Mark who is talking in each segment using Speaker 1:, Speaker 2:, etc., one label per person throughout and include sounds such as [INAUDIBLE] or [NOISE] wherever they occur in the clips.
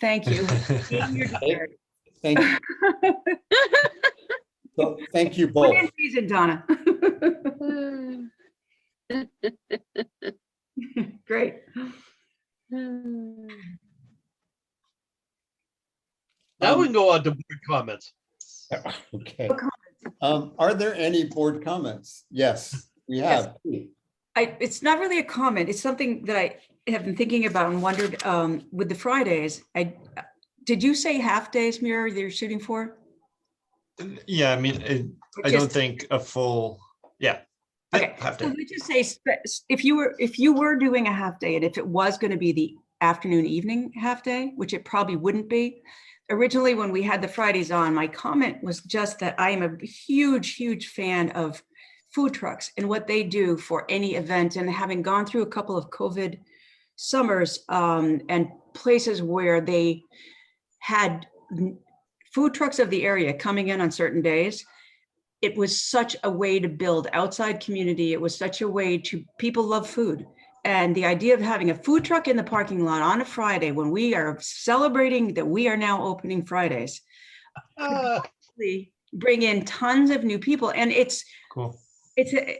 Speaker 1: Thank you. Being your dear.
Speaker 2: Thank, [LAUGHS] so thank you both.
Speaker 1: Within reason, Donna.
Speaker 3: Hmm.
Speaker 1: Great.
Speaker 3: Hmm.
Speaker 4: Um,
Speaker 5: Now we can go on to board comments.
Speaker 2: Okay. Um, are there any board comments? Yes, we
Speaker 1: Yes.
Speaker 2: have.
Speaker 1: I, it's not really a comment. It's something that I have been thinking about and wondered, um, with the Fridays, I, did you say half days, Mira, that you're shooting for?
Speaker 4: Yeah, I mean, it-
Speaker 1: Or
Speaker 4: I don't
Speaker 1: just-
Speaker 4: think a full, yeah. yeah,
Speaker 1: Okay,
Speaker 4: half
Speaker 1: so [LAUGHS]
Speaker 4: day.
Speaker 1: let's just say, spe- if you were, if you were doing a half day and if it was going to be the afternoon, evening half day, which it probably wouldn't be. Originally, when we had the Fridays on, my comment was just that I am a huge, huge fan of food trucks and what they do for any event. And having gone through a couple of COVID summers um, and places where they had n- food trucks of the area coming in on certain days, it was such a way to build outside community. It was such a way to, people love food. And the idea of having a food truck in the parking lot on a Friday when we are celebrating that we are now opening Fridays,
Speaker 5: Ah,
Speaker 1: [LAUGHS] really bring in tons of new people. And it's,
Speaker 4: Cool.
Speaker 1: it's, a-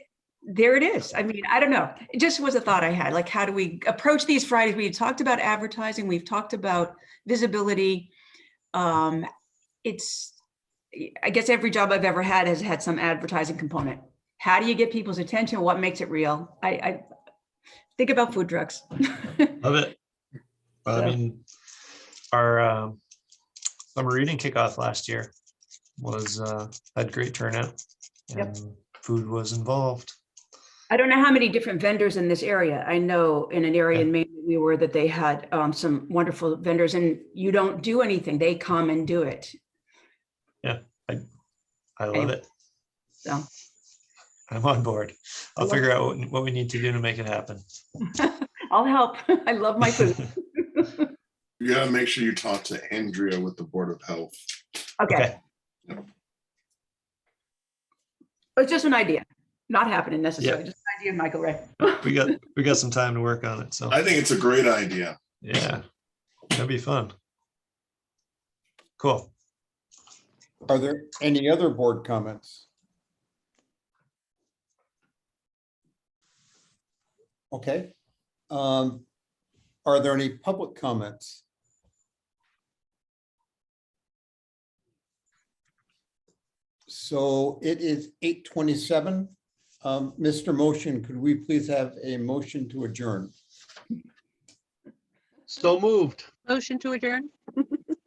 Speaker 1: there it is. I mean, I don't know. It just was a thought I had, like, how do we approach these Fridays? We talked about advertising, we've talked about visibility. Um, it's, I guess every job I've ever had has had some advertising component. How do you get people's attention? What makes it real? I, I think about food trucks.
Speaker 4: Love it. Well, I
Speaker 1: So-
Speaker 4: mean, our um, summer reading kickoff last year was, uh, had great turnout.
Speaker 1: Yep.
Speaker 4: and Food was involved.
Speaker 1: I don't know how many different vendors in this area. I know in an area in Maine that we were that they had um, some wonderful vendors and you don't do anything. They come and do it.
Speaker 4: I love
Speaker 1: Okay.
Speaker 4: it.
Speaker 1: So.
Speaker 4: I'm on board. I'll
Speaker 1: love-
Speaker 4: figure out what- what we need to do to make it happen.
Speaker 1: I'll help. [LAUGHS] I love my food.
Speaker 6: You gotta make sure you talk to Andrea with the Board of Health.
Speaker 1: Okay. It's just an idea, not happening necessarily, just an idea, Michael Ray.
Speaker 4: We got, we got some time to work on it, so.
Speaker 6: I think it's a great idea.
Speaker 4: Yeah, that'd be fun. Cool.
Speaker 2: Are there any other board comments? Okay. Um, are there any public comments? So it is eight twenty-seven. Um, Mr. Motion, could we please have a motion to adjourn?
Speaker 5: So moved.
Speaker 3: Motion to adjourn?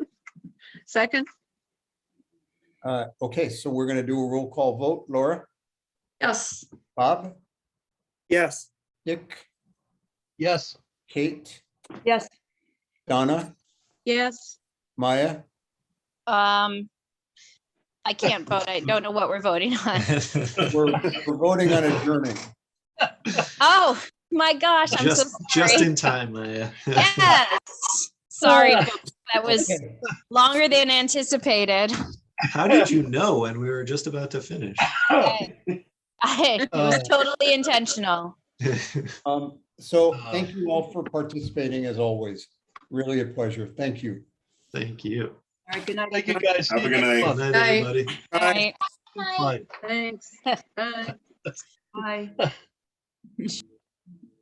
Speaker 3: [LAUGHS] Second?
Speaker 2: Uh, okay, so we're gonna do a roll call vote. Laura,
Speaker 3: Yes.
Speaker 2: Bob,
Speaker 7: Yes.
Speaker 2: Dick,
Speaker 5: Yes.
Speaker 2: Kate,
Speaker 1: Yes.
Speaker 2: Donna,
Speaker 3: Yes.
Speaker 2: Maya?
Speaker 8: Um, I can't vote. I don't know what we're voting
Speaker 4: [LAUGHS]
Speaker 8: on.
Speaker 2: We're we're voting on adjourning.
Speaker 8: Oh, my gosh, I'm so
Speaker 4: Just, just
Speaker 8: [LAUGHS] sorry.
Speaker 4: in time, Maya.
Speaker 8: Yes.
Speaker 5: [COUGHS]
Speaker 8: Sorry,
Speaker 5: Ah.
Speaker 8: folks, that was longer than anticipated.
Speaker 4: How did you know when we were just about to finish? [LAUGHS]
Speaker 5: Uh,
Speaker 8: I it was totally intentional.
Speaker 2: Um, So thank you all for participating as always. Really a pleasure. Thank you.
Speaker 4: Thank you.
Speaker 1: All right, good night.
Speaker 5: Thank you,
Speaker 1: everyone.
Speaker 5: guys.
Speaker 6: Have a good
Speaker 4: Good
Speaker 6: night.
Speaker 4: night,
Speaker 3: Bye.
Speaker 4: everybody.
Speaker 8: Right.
Speaker 4: Bye.
Speaker 3: Thanks. Bye.
Speaker 1: Bye.